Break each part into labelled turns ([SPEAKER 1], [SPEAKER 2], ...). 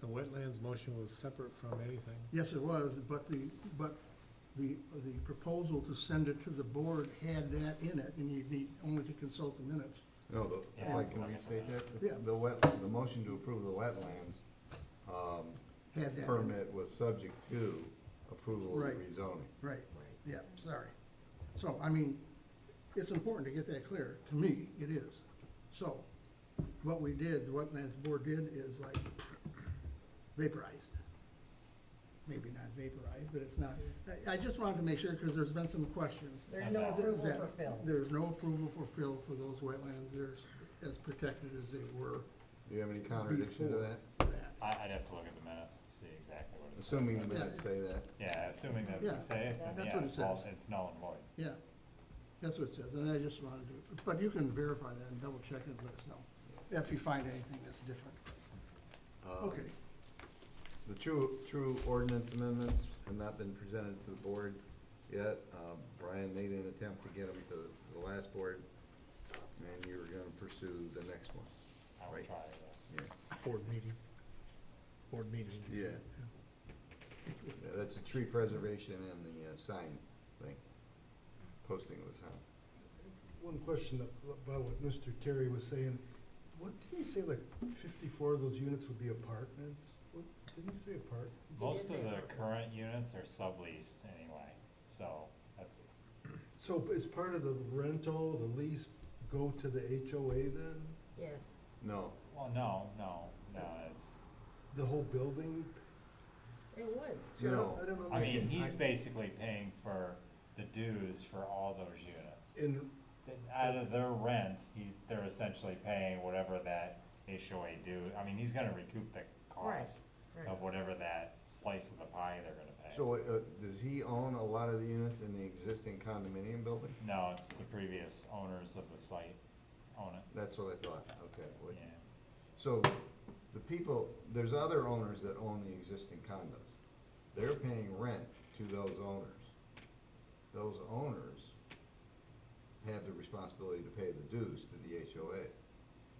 [SPEAKER 1] The wetlands motion was separate from anything.
[SPEAKER 2] Yes, it was, but the, but the, the proposal to send it to the board had that in it, and you need only to consult the minutes.
[SPEAKER 3] No, the- if I can restate that,
[SPEAKER 2] Yeah.
[SPEAKER 3] the wet, the motion to approve the wetlands um,
[SPEAKER 2] Had that in it.
[SPEAKER 3] permit was subject to approval of
[SPEAKER 2] Right.
[SPEAKER 3] rezoning.
[SPEAKER 2] Right, yeah, sorry. So, I mean, it's important to get that clear. To me, it is. So, what we did, the wetlands board did is like vaporized. Maybe not vaporized, but it's not, I, I just wanted to make sure, because there's been some questions.
[SPEAKER 4] There's no
[SPEAKER 2] Th-
[SPEAKER 4] approval
[SPEAKER 2] that
[SPEAKER 4] for Phil.
[SPEAKER 2] There's no approval for fill for those wetlands, they're as protected as they were
[SPEAKER 3] Do you have any contradiction to
[SPEAKER 2] Before.
[SPEAKER 3] that?
[SPEAKER 2] that.
[SPEAKER 5] I, I'd have to look at the minutes to see exactly what it says.
[SPEAKER 3] Assuming the
[SPEAKER 5] but-
[SPEAKER 3] minutes say that.
[SPEAKER 5] Yeah, assuming that we
[SPEAKER 2] Yeah,
[SPEAKER 5] say it, then
[SPEAKER 2] that's
[SPEAKER 5] yeah,
[SPEAKER 2] what it
[SPEAKER 5] it's all,
[SPEAKER 2] says.
[SPEAKER 5] it's null and void.
[SPEAKER 2] Yeah, that's what it says, and I just wanted to, but you can verify that and double check it, and let us know, if you find anything that's different.
[SPEAKER 6] Uh,
[SPEAKER 3] Um,
[SPEAKER 2] Okay,
[SPEAKER 3] The true, true ordinance amendments have not been presented to the board yet. Um, Brian made an attempt to get them to the last board, and you were gonna pursue the next one.
[SPEAKER 5] I will
[SPEAKER 3] Right.
[SPEAKER 5] try this.
[SPEAKER 3] Yeah.
[SPEAKER 1] Board meeting. Board meeting.
[SPEAKER 3] Yeah. Yeah, That's the tree preservation and the uh, sign thing, posting of the sign.
[SPEAKER 6] One question about what Mr. Terry was saying. What, did he say like fifty-four of those units would be apartments? What, didn't he say apart?
[SPEAKER 5] Most of the current units are subleased anyway, so that's,
[SPEAKER 6] So is part of the rental, the lease, go to the HOA then?
[SPEAKER 4] Yes,
[SPEAKER 3] No,
[SPEAKER 5] well, no, no, no, it's,
[SPEAKER 6] The whole building?
[SPEAKER 4] it would.
[SPEAKER 6] See, I don't-
[SPEAKER 3] No.
[SPEAKER 6] I don't
[SPEAKER 5] I mean,
[SPEAKER 6] understand.
[SPEAKER 5] he's basically paying for the dues for all those units.
[SPEAKER 6] And,
[SPEAKER 5] Out of their rent, he's, they're essentially paying whatever that HOA due, I mean, he's gonna recoup the
[SPEAKER 4] Right,
[SPEAKER 5] cost
[SPEAKER 4] right.
[SPEAKER 5] of whatever that slice of the pie they're gonna pay.
[SPEAKER 3] so, uh, does he own a lot of the units in the existing condominium building?
[SPEAKER 5] No, it's the previous owners of the site own it,
[SPEAKER 3] That's what I thought, okay.
[SPEAKER 5] yeah.
[SPEAKER 3] what- So, the people, there's other owners that own the existing condos. They're paying rent to those owners. Those owners have the responsibility to pay the dues to the HOA.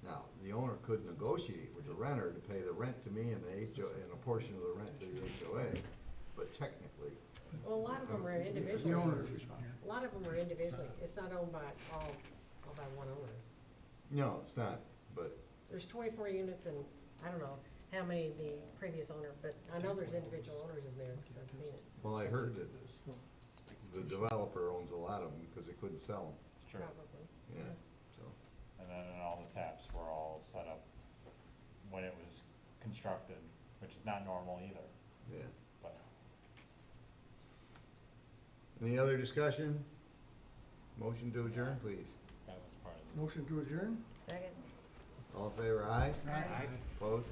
[SPEAKER 3] Now, the owner could negotiate with the renter to pay the rent to me and the HOA, and a portion of the rent to the HOA, but technically,
[SPEAKER 4] Well, a lot of them are
[SPEAKER 2] the
[SPEAKER 4] individually,
[SPEAKER 2] owner is responsible.
[SPEAKER 4] a lot of them are individually. It's not owned by all, all by one owner.
[SPEAKER 3] no, it's not, but
[SPEAKER 4] There's twenty-four units and I don't know how many the previous owner, but I know there's individual owners in there because I've seen it.
[SPEAKER 3] Well, I heard that the developer owns a lot of them because they couldn't sell
[SPEAKER 5] It's true.
[SPEAKER 4] Probably.
[SPEAKER 3] them, yeah, so.
[SPEAKER 5] And then and all the taps were all set up when it was constructed, which is not normal either,
[SPEAKER 3] Yeah.
[SPEAKER 5] but.
[SPEAKER 3] Any other discussion? Motion to adjourn, please.
[SPEAKER 5] That was part of
[SPEAKER 2] Motion to adjourn?
[SPEAKER 4] Second?
[SPEAKER 3] All in favor, aye?
[SPEAKER 4] Aye.
[SPEAKER 3] Opposed?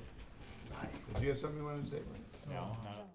[SPEAKER 3] Did you have something you wanted to say, Mike?
[SPEAKER 5] the, no, no.